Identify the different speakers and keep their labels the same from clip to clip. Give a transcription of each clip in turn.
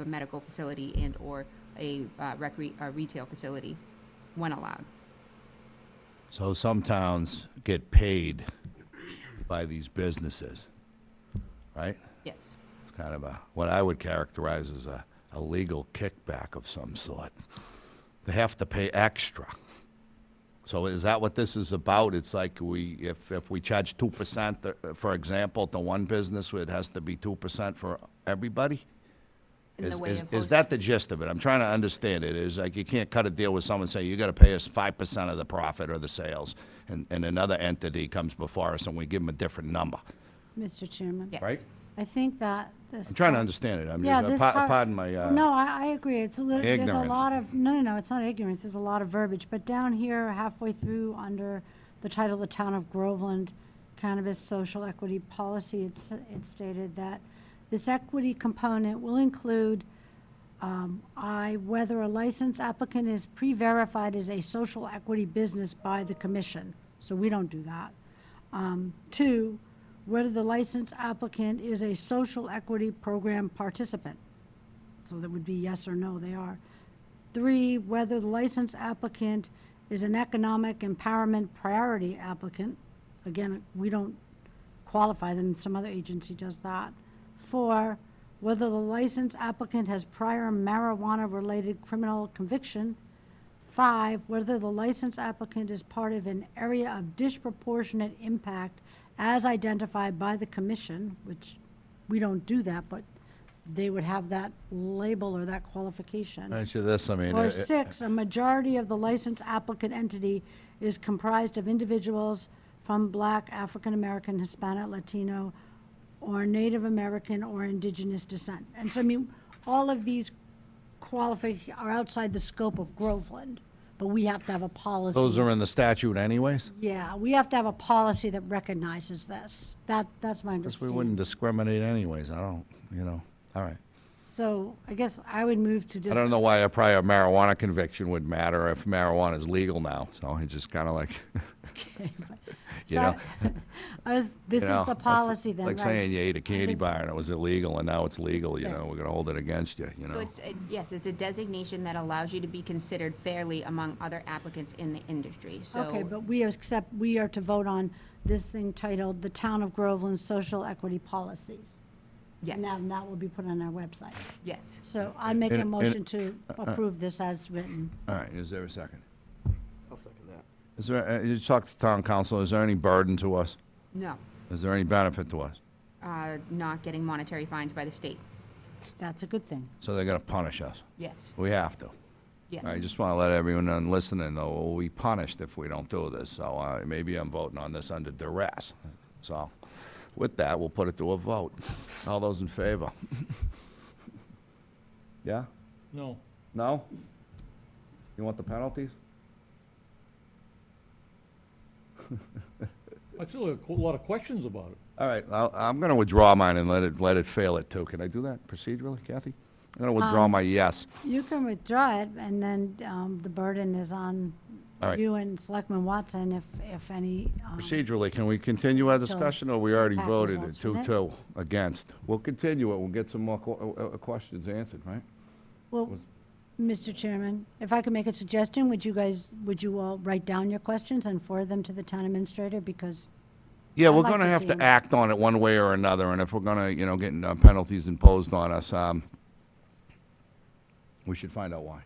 Speaker 1: a medical facility and/or a uh, recre- a retail facility, when allowed.
Speaker 2: So some towns get paid by these businesses, right?
Speaker 1: Yes.
Speaker 2: It's kind of a, what I would characterize as a, a legal kickback of some sort. They have to pay extra. So is that what this is about? It's like we, if, if we charge two percent, uh, for example, to one business, it has to be two percent for everybody?
Speaker 1: In the
Speaker 2: Is,
Speaker 1: way
Speaker 2: is,
Speaker 1: of
Speaker 2: is
Speaker 1: both-
Speaker 2: that the gist of it? I'm trying to understand it. Is like you can't cut a deal with someone and say, you gotta pay us five percent of the profit or the sales, and, and another entity comes before us and we give them a different number,
Speaker 3: Mr. Chairman.
Speaker 1: Yeah.
Speaker 2: right?
Speaker 3: I think that this.
Speaker 2: I'm trying to
Speaker 3: part-
Speaker 2: understand it. I'm,
Speaker 3: Yeah, this
Speaker 2: just- pa-
Speaker 3: part-
Speaker 2: pardon my, uh.
Speaker 3: No, I, I agree. It's a little, there's a
Speaker 2: ignorance.
Speaker 3: lot of, no, no, no, it's not ignorance. There's a lot of verbiage. But down here halfway through, under the title, The Town of Groveland Cannabis Social Equity Policy, it's, it stated that this equity component will include um, I, whether a licensed applicant is pre-verified as a social equity business by the commission, so we don't do that. Um, Two, whether the licensed applicant is a social equity program participant, so that would be yes or no, they are. Three, whether the licensed applicant is an economic empowerment priority applicant, again, we don't qualify them, some other agency does that. Four, whether the licensed applicant has prior marijuana-related criminal conviction. Five, whether the licensed applicant is part of an area of disproportionate impact as identified by the commission, which we don't do that, but they would have that label or that qualification.
Speaker 2: Actually, this, I mean. uh,
Speaker 3: Or
Speaker 2: it-
Speaker 3: six, a majority of the licensed applicant entity is comprised of individuals from Black, African American, Hispanic, Latino, or Native American or indigenous descent. And so, I mean, all of these qualifications are outside the scope of Groveland, but we have to have a policy.
Speaker 2: Those are in the statute anyways?
Speaker 3: Yeah, we have to have a policy that recognizes this. That, that's my
Speaker 2: Guess we
Speaker 3: understanding.
Speaker 2: wouldn't discriminate anyways. I don't, you know, all right.
Speaker 3: So I guess I would move to just.
Speaker 2: I don't know why a prior marijuana conviction would matter if marijuana is legal now, so it's just kind of like, you
Speaker 3: So,
Speaker 2: know?
Speaker 3: I was, this
Speaker 2: you
Speaker 3: is
Speaker 2: know,
Speaker 3: the
Speaker 2: that's-
Speaker 3: policy
Speaker 2: it's
Speaker 3: then,
Speaker 2: Like saying
Speaker 3: right?
Speaker 2: you ate a candy bar and it was illegal, and now it's legal, you
Speaker 3: Right.
Speaker 2: know, we're gonna hold it against you, you
Speaker 1: So
Speaker 2: know?
Speaker 1: it's, it- yes, it's a designation that allows you to be considered fairly among other applicants in the industry, so.
Speaker 3: Okay, but we accept, we are to vote on this thing titled "The Town of Groveland Social Equity Policies."
Speaker 1: Yes,
Speaker 3: And that, and that will be put on our website.
Speaker 1: yes.
Speaker 3: So I make
Speaker 2: And- uh,
Speaker 3: a
Speaker 2: and-
Speaker 3: motion to approve this as written.
Speaker 2: All right, is there a second?
Speaker 4: I'll second that.
Speaker 2: Is there, uh, you talked to town council, is there any burden to us?
Speaker 1: No,
Speaker 2: Is there any benefit to us?
Speaker 1: uh, not getting monetary fines by the state.
Speaker 3: That's a good thing.
Speaker 2: So they're gonna punish us?
Speaker 1: Yes,
Speaker 2: We have to.
Speaker 1: yes.
Speaker 2: I just want to let everyone on listening know, we'll be punished if we don't do this, so uh, maybe I'm voting on this under duress. So with that, we'll put it to a vote. All those in favor? Yeah?
Speaker 5: No.
Speaker 2: No? You want the penalties?
Speaker 5: I still have a qu- lot of questions about it.
Speaker 2: All right, I'll- I'm going to withdraw mine and let it, let it fail it too. Can I do that procedurally, Kathy? I'm going to withdraw
Speaker 3: Um,
Speaker 2: my yes.
Speaker 3: You can withdraw it, and then um, the burden is on
Speaker 2: All right.
Speaker 3: you and Selectman Watson if, if any. um,
Speaker 2: Procedurally, can we continue our discussion, or we already
Speaker 3: Back
Speaker 2: voted it
Speaker 3: results from it.
Speaker 2: 2-2 against? We'll continue it, we'll get some more que- uh, uh, questions answered, right?
Speaker 3: Well, Mr. Chairman, if I could make a suggestion, would you guys, would you all write down your questions and forward them to the town administrator? Because
Speaker 2: Yeah,
Speaker 3: I'd
Speaker 2: we're
Speaker 3: like
Speaker 2: going to
Speaker 3: to
Speaker 2: have
Speaker 3: see
Speaker 2: to
Speaker 3: him.
Speaker 2: act on it one way or another, and if we're going to, you know, getting uh, penalties imposed on us, um, we should find out why.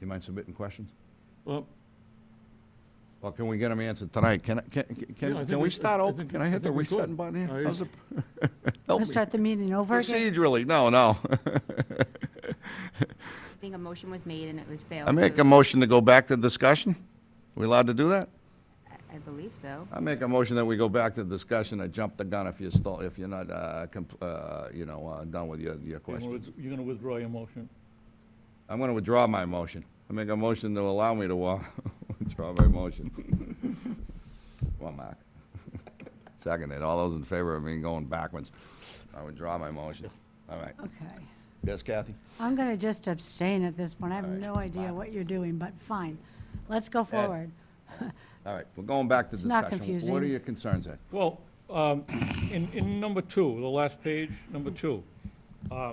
Speaker 2: You mind submitting questions?
Speaker 5: Well,
Speaker 2: Well, can we get them answered tonight? Can, I- can,
Speaker 5: Yeah, I
Speaker 2: can,
Speaker 5: think
Speaker 2: can we
Speaker 5: we-
Speaker 2: start
Speaker 5: I
Speaker 2: open?
Speaker 5: think-
Speaker 2: Can I
Speaker 5: I
Speaker 2: hit the
Speaker 5: think we could.
Speaker 2: reset button here?
Speaker 5: I-
Speaker 2: How's it- Help
Speaker 3: we'll
Speaker 2: me.
Speaker 3: start the meeting over again.
Speaker 2: Procedurally, no, no.
Speaker 1: I think a motion was made and it was failed.
Speaker 2: I make
Speaker 1: so-
Speaker 2: a motion to go back to discussion? We allowed to do that?
Speaker 1: I- I believe so.
Speaker 2: I make a motion that we go back to discussion. I jumped the gun if you're still, if you're not, uh, compl- uh, you know, uh, done with your, your
Speaker 5: you're gonna
Speaker 2: questions.
Speaker 5: with- you're gonna withdraw your motion.
Speaker 2: I'm going to withdraw my motion. I make a motion to allow me to wa- withdraw my motion. Come on, Mark. Second it. All those in favor of me going backwards. I withdraw my motion. All right.
Speaker 3: Okay.
Speaker 2: Yes, Kathy?
Speaker 3: I'm going to just abstain at this point. I have
Speaker 2: All right.
Speaker 3: no idea what you're doing, but fine. Let's go forward.
Speaker 2: All right, we're going back to discussion.
Speaker 3: not
Speaker 2: What are
Speaker 3: confusing.
Speaker 2: your concerns, Ed?
Speaker 5: Well, um, in, in number two, the last page, number two, uh,